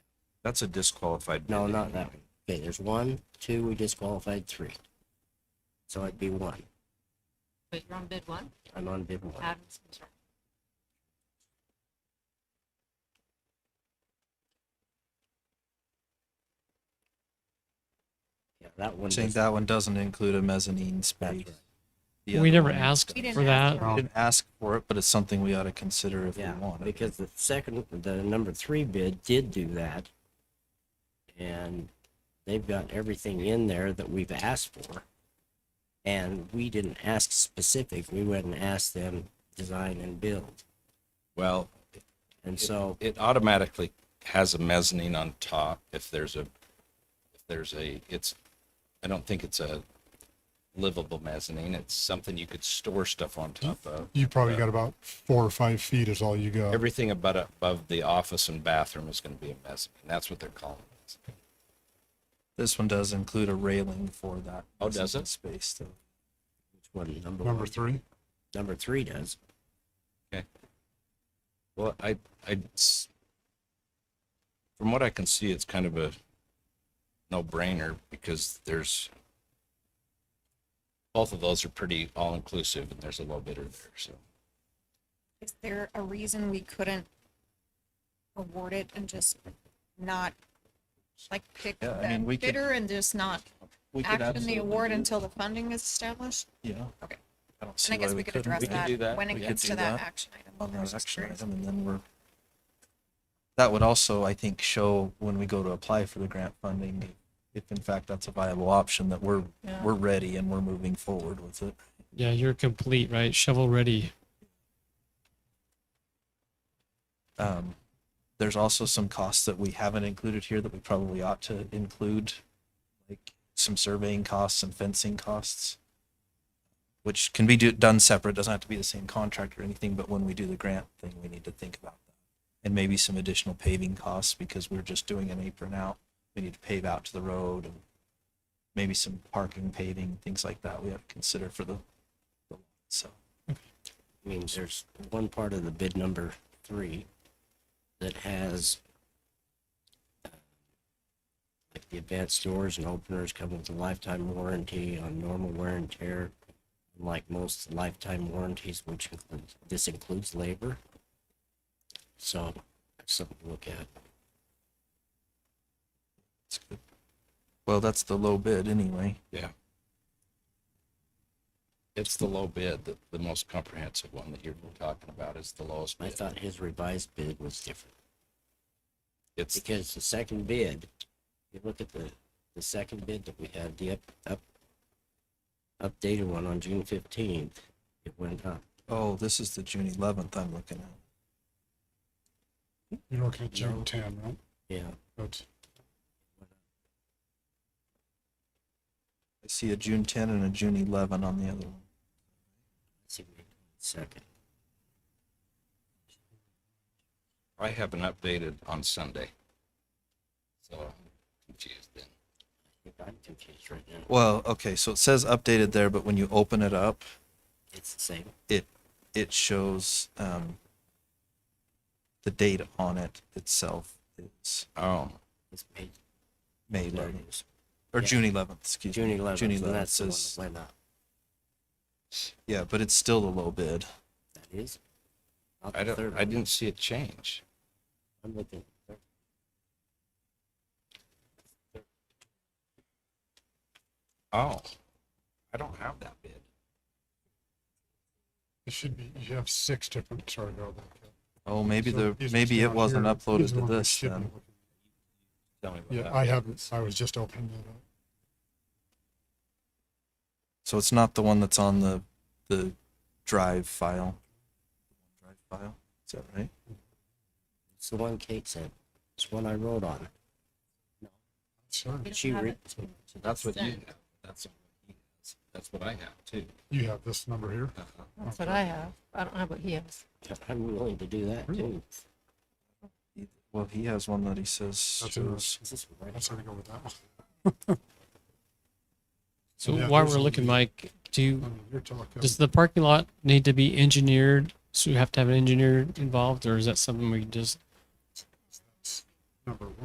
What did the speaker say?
That's a disqualified bid. No, not that one. Okay, there's one, two, we disqualified three. So it'd be one. Wait, you're on bid one? I'm on bid one. Adam's concern. Yeah, that one. I think does- that one doesn't include a mezzanine that's space. right. The we other never one- asked We didn't for ask that. for it. Didn't ask for it, but it's something we ought to consider if we Yeah, want it. because the second, the number three bid did do that. And they've got everything in there that we've asked for. And we didn't ask specific, we went and asked them design and build. Well, And so, it automatically has a mezzanine on top if there's a, if there's a, it's, I don't think it's a livable mezzanine. It's something you could store stuff on top of. You probably got about four or five feet is all you got. Everything about above the office and bathroom is going to be a mezzanine. That's what they're calling it. This one does include a railing for that. Oh, does mezzanine it? Space though. which one, number Number one? three, Number three does. Well, I, I, it's- from what I can see, it's kind of a no-brainer because there's, both of those are pretty all-inclusive and there's a low bidder there, so. Is there a reason we couldn't award it and just not, like, pick Yeah, I the mean, we could- bidder and just not We could action the absolutely award do until the funding is established? that. Yeah. Okay. I don't And see I guess why we we could couldn't. address We could do that when We it could gets do to that that action item. on I was that just action curious. item, and then we're. That would also, I think, show when we go to apply for the grant funding, if in fact that's a viable option, that we're, Yeah. we're ready and we're moving forward with it. Yeah, you're complete, right? Shovel ready. Um, there's also some costs that we haven't included here that we probably ought to include, like some surveying costs and fencing costs, which can be do, done separate, doesn't have to be the same contract or anything, but when we do the grant thing, we need to think about that. And maybe some additional paving costs because we're just doing an apron out. We need to pave out to the road and maybe some parking paving, things like that we have to consider for the, the- so. I mean, there's one part of the bid number three that has uh, like the advanced doors and openers come with a lifetime warranty on normal wear and tear. Like most lifetime warranties, which includes, this includes labor. So, that's something to look at. That's good. Well, that's the low bid anyway. It's the low bid, the, the most comprehensive one that you're talking about is the lowest I bid. thought his revised bid was different It's, because the second bid, you look at the, the second bid that we had, the up, up, updated one on June fifteenth, it went up. Oh, this is the June eleventh I'm looking at. you're looking at June ten, right? Yeah, That's, I see a June ten and a June eleven on the other one. let's see, wait a second. I haven't updated on Sunday. So I'm confused then. I'm confused right now. Well, okay, so it says updated there, but when you open it up, It's the same. it it shows um, the date on it itself is Oh, It's May, May there it eleventh is. or Yeah. June eleventh. Excuse June me. eleventh. June and eleventh That's the one that says went up. yeah, but it's still the low bid. That is. not I the don't, third I one. didn't see it change. I'm looking. at the third. Oh, I don't have that bid. it should be, you have six different, sorry about that. Oh, maybe So the these are maybe still it on wasn't here. uploaded These to are the ones we this should be then. looking Tell me at. about that. Yeah, I haven't, I was just opening it up. So it's not the one that's on the the drive file. Drive file. Is that right? It's the one Kate said. It's the one I wrote on. Sorry, We don't She have re- it. That's what you Sent. have. That's, what he has. that's what I have too. you have this number here. Uh-huh. That's what I have. I don't have what he has. I'm willing to do that too. He- Well, he has one that he says That's in shows. Is this right? I'm sorry to go with that one. So Yeah, while there's we're looking, some- Mike, do I you, mean, You're talking, does the parking lot need to be engineered? So you have to have an engineer involved, or is that something we just number one.